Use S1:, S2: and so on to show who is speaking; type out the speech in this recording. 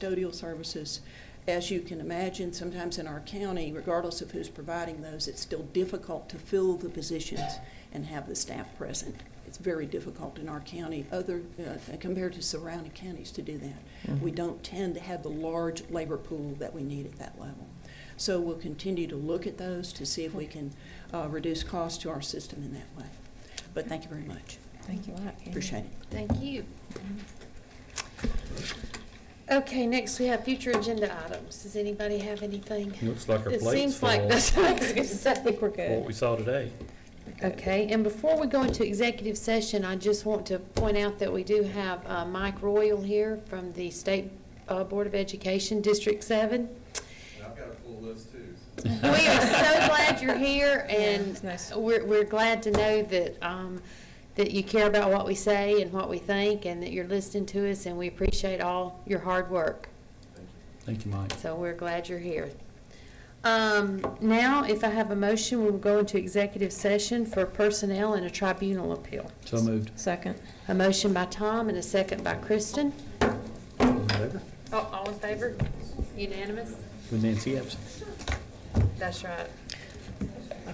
S1: custodial services. As you can imagine, sometimes in our county, regardless of who's providing those, it's still difficult to fill the positions and have the staff present. It's very difficult in our county, other, uh, compared to surrounding counties to do that. We don't tend to have the large labor pool that we need at that level. So we'll continue to look at those to see if we can uh, reduce costs to our system in that way. But thank you very much.
S2: Thank you a lot. Amy.
S1: Appreciate it.
S3: Thank you. Okay, next we have future agenda items. Does anybody have anything?
S4: Looks like our
S3: It
S4: plate's
S3: seems like,
S4: full
S3: that's what I was gonna say.
S2: We're
S4: for what
S2: good.
S4: we saw today.
S3: Okay, and before we go into executive session, I just want to point out that we do have uh, Mike Royal here from the State uh, Board of Education, District Seven.
S5: And I've got a full list too, so.
S3: We are so glad you're here, and
S2: it's nice.
S3: we're, we're glad to know that, um, that you care about what we say and what we think, and that you're listening to us, and we appreciate all your hard work.
S4: Thank you, Mike.
S3: So we're glad you're here. Um, now, if I have a motion, we'll go into executive session for personnel and a tribunal appeal.
S4: So moved.
S2: Second.
S3: A motion by Tom and a second by Kristen.
S4: All in favor?
S3: Oh, All in favor? Unanimous?
S4: With Nancy absent.
S3: That's right.